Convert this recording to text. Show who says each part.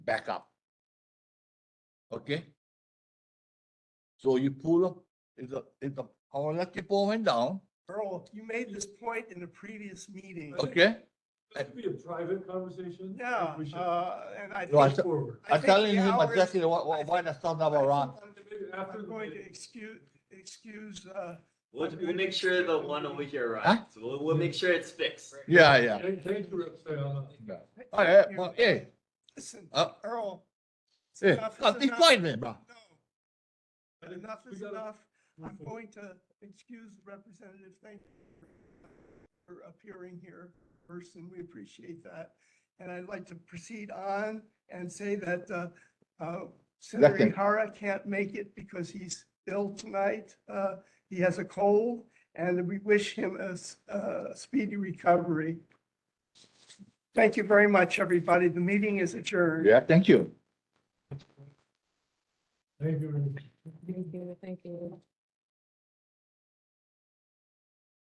Speaker 1: back up. Okay? So you pull up, if the, if the power electric pole went down,
Speaker 2: Earl, you made this point in the previous meeting.
Speaker 1: okay?
Speaker 3: This could be a private conversation.
Speaker 2: Yeah,
Speaker 3: Like, we should
Speaker 2: uh, and I
Speaker 1: No, I
Speaker 2: think.
Speaker 1: said-
Speaker 3: Forward.
Speaker 2: I
Speaker 1: I'm
Speaker 2: think
Speaker 1: telling
Speaker 2: the
Speaker 1: him
Speaker 2: hours-
Speaker 1: exactly what,
Speaker 2: I
Speaker 1: what, why
Speaker 2: think-
Speaker 1: the sound of Iran.
Speaker 3: Maybe After
Speaker 2: I'm
Speaker 3: the
Speaker 2: going to
Speaker 3: meeting.
Speaker 2: excuse, excuse, uh,
Speaker 4: We'll, we'll make sure the one over here
Speaker 1: Huh?
Speaker 4: arrives. We'll, we'll make sure it's fixed.
Speaker 1: Yeah, yeah.
Speaker 3: Thank thank you, Roxana.
Speaker 1: All right, well, hey,
Speaker 2: listen,
Speaker 1: uh,
Speaker 2: Earl. it's
Speaker 1: hey,
Speaker 2: enough is
Speaker 1: cut this
Speaker 2: enough.
Speaker 1: point, man, bro.
Speaker 2: No. But enough
Speaker 3: We
Speaker 2: is
Speaker 3: gotta-
Speaker 2: enough. I'm going to excuse the representative. Thank you for appearing here first, and we appreciate that. And I'd like to proceed on and say that uh, uh, Senator
Speaker 1: Second.
Speaker 2: Ihara can't make it because he's ill tonight. Uh, He has a cold, and we wish him a s- a speedy recovery. Thank you very much, everybody. The meeting is adjourned.
Speaker 1: Yeah, thank you.
Speaker 3: Thank you.
Speaker 5: Thank you, thank you.